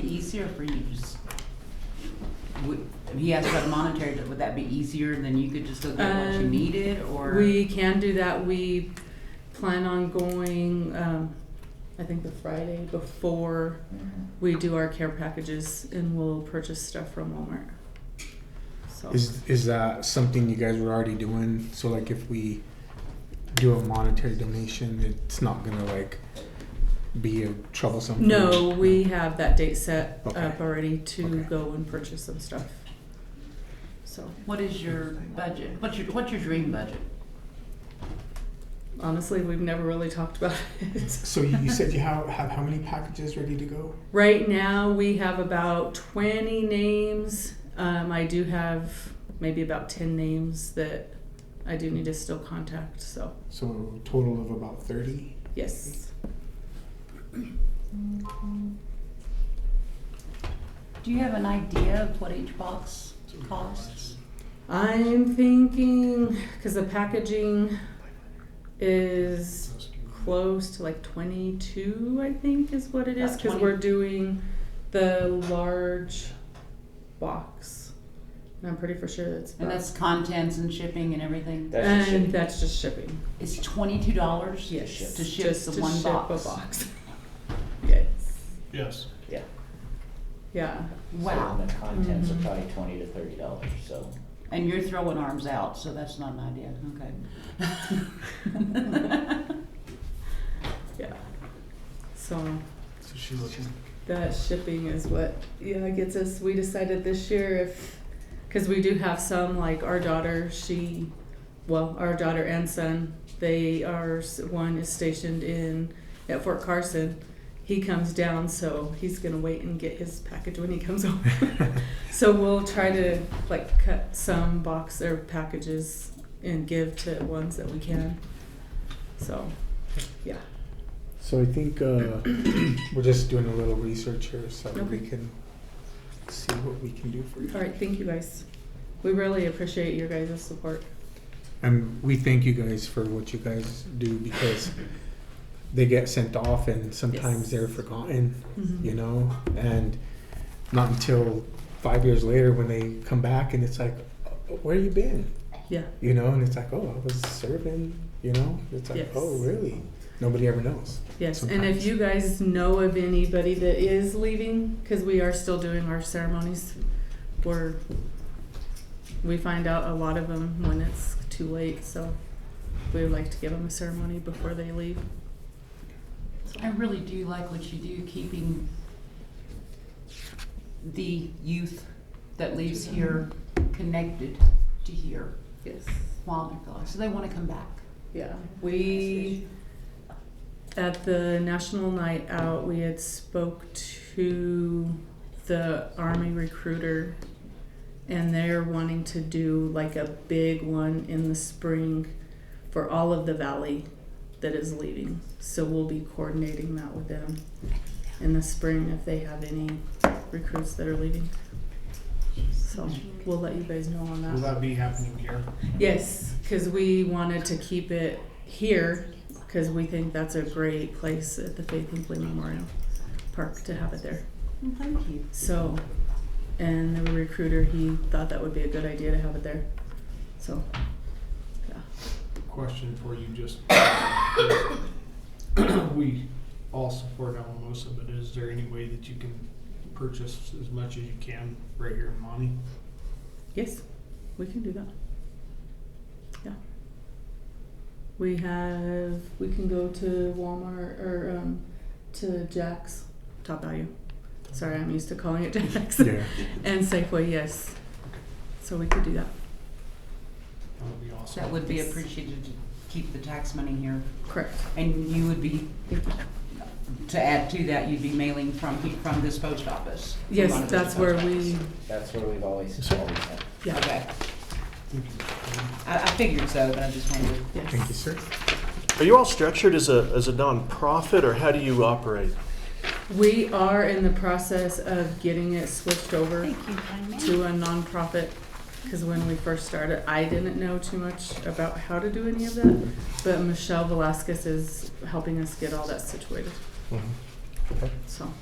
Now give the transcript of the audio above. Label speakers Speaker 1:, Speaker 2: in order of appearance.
Speaker 1: easier for you to just, would, he asked about the monetary, would that be easier than you could just go get what you
Speaker 2: Um,
Speaker 1: needed, or?
Speaker 2: We can do that. We plan on going, um, I think the Friday before we do our care packages and we'll purchase stuff from Walmart. So,
Speaker 3: Is is that something you guys were already doing? So like if we do a monetary donation, it's not gonna like be a troublesome. for-
Speaker 2: no, we have that date set
Speaker 3: Okay.
Speaker 2: up already to
Speaker 3: Okay.
Speaker 2: go and purchase some stuff. So
Speaker 1: What is your budget, what's your, what's your dream budget?
Speaker 2: honestly, we've never really talked about it.
Speaker 3: So you, you said you have have how many packages ready to go?
Speaker 2: Right now, we have about 20 names. Um, I do have maybe about 10 names that I do need to still contact. So,
Speaker 3: So total of about thirty.
Speaker 2: yes.
Speaker 4: Do you have an idea of what each box costs?
Speaker 2: I'm thinking because the packaging is close to like 22, I think, is what it is
Speaker 1: About
Speaker 2: because
Speaker 1: 20.
Speaker 2: we're doing the large box. And I'm pretty for sure that's
Speaker 1: And
Speaker 2: about-
Speaker 1: that's contents and shipping and everything?
Speaker 5: That's just
Speaker 2: and uh,
Speaker 5: shipping.
Speaker 2: that's just shipping.
Speaker 1: It's twenty-two dollars?
Speaker 2: Yes,
Speaker 1: To ship
Speaker 2: just
Speaker 1: the
Speaker 2: to
Speaker 1: one
Speaker 2: ship
Speaker 1: box?
Speaker 2: a box. yes.
Speaker 6: Yes.
Speaker 5: Yeah.
Speaker 2: Yeah.
Speaker 1: Wow.
Speaker 5: So the contents
Speaker 2: Mhm.
Speaker 5: are probably twenty to thirty dollars. So
Speaker 1: And you're throwing arms out, so that's not an idea, okay.
Speaker 2: Yeah. So
Speaker 3: So she's looking.
Speaker 2: that shipping is what yeah gets us. We decided this year if because we do have some like our daughter. She, well, our daughter and son. They are s- one is stationed in at Fort Carson. He comes down, so he's gonna wait and get his package when he comes home. so we'll try to like cut some box or packages and give to ones that we can. So, yeah.
Speaker 3: So I think uh, we're just doing a little research here so that we
Speaker 2: Okay.
Speaker 3: can see what we can do for you.
Speaker 2: All right, thank you guys. We really appreciate your guys' support.
Speaker 3: And we thank you guys for what you guys do because they get sent off and sometimes
Speaker 2: Yes.
Speaker 3: they're forgotten, you know? And not until five years later when they come back and it's like, "Oh, where you been?
Speaker 2: Yeah,
Speaker 3: You know, and it's like, oh, I was serving, you know? It's like,
Speaker 2: Yes.
Speaker 3: oh, really? Nobody ever knows.
Speaker 2: yes. And if
Speaker 3: Sometimes.
Speaker 2: you guys know of anybody that is leaving, because we are still doing our ceremonies, we're, we find out a lot of them when it's too late, so we would like to give them a ceremony before they leave.
Speaker 1: I really do like what you do, keeping the youth that leaves here connected to here
Speaker 2: Yes.
Speaker 1: while they're gone, so they wanna come back.
Speaker 2: Yeah, we, at the National Night Out, we had spoke to the Army recruiter, and they're wanting to do like a big one in the spring for all of the valley that is leaving. So we'll be coordinating that with them in the spring if they have any recruits that are leaving. So we'll let you guys know on
Speaker 6: Will that be happening here?
Speaker 2: Yes, because we wanted to keep it here because we think that's a great place at the Faith and Play Memorial Park to have it there.
Speaker 1: Thank you.
Speaker 2: So, and the recruiter, he thought that would be a good idea to have it there. So, yeah.
Speaker 6: Question for you, just. We all support Alamosa, but is there any way that you can purchase as much as you can right here in Monty?
Speaker 2: Yes, we can do that. Yeah. We have, we can go to Walmart or um, to Jack's, Top Value. Sorry, I'm used to calling it Jack's. And Safeway, yes. So we could do that.
Speaker 6: That would be awesome.
Speaker 1: That would be appreciated to keep the tax money here,
Speaker 2: Correct.
Speaker 1: and you would be,
Speaker 2: Thank you.
Speaker 1: to add to that, you'd be mailing from, he- from this post office. from one
Speaker 2: Yes,
Speaker 1: of those
Speaker 2: that's where
Speaker 1: post
Speaker 2: we,
Speaker 5: that's where we've always always had.
Speaker 1: offices.
Speaker 2: yeah,
Speaker 1: Okay,
Speaker 6: Thank you.
Speaker 1: I, I figured so, but I just wanted to.
Speaker 2: yes.
Speaker 3: Thank you, sir.
Speaker 7: Are you all structured as a, as a nonprofit, or how do you operate?
Speaker 2: We are in the process of getting it switched over
Speaker 4: Thank you, kind man.
Speaker 2: to a nonprofit, because when we first started, I didn't know too much about how to do any of that. But Michelle Velasquez is helping us get all that situated,
Speaker 3: Mhm.
Speaker 2: so.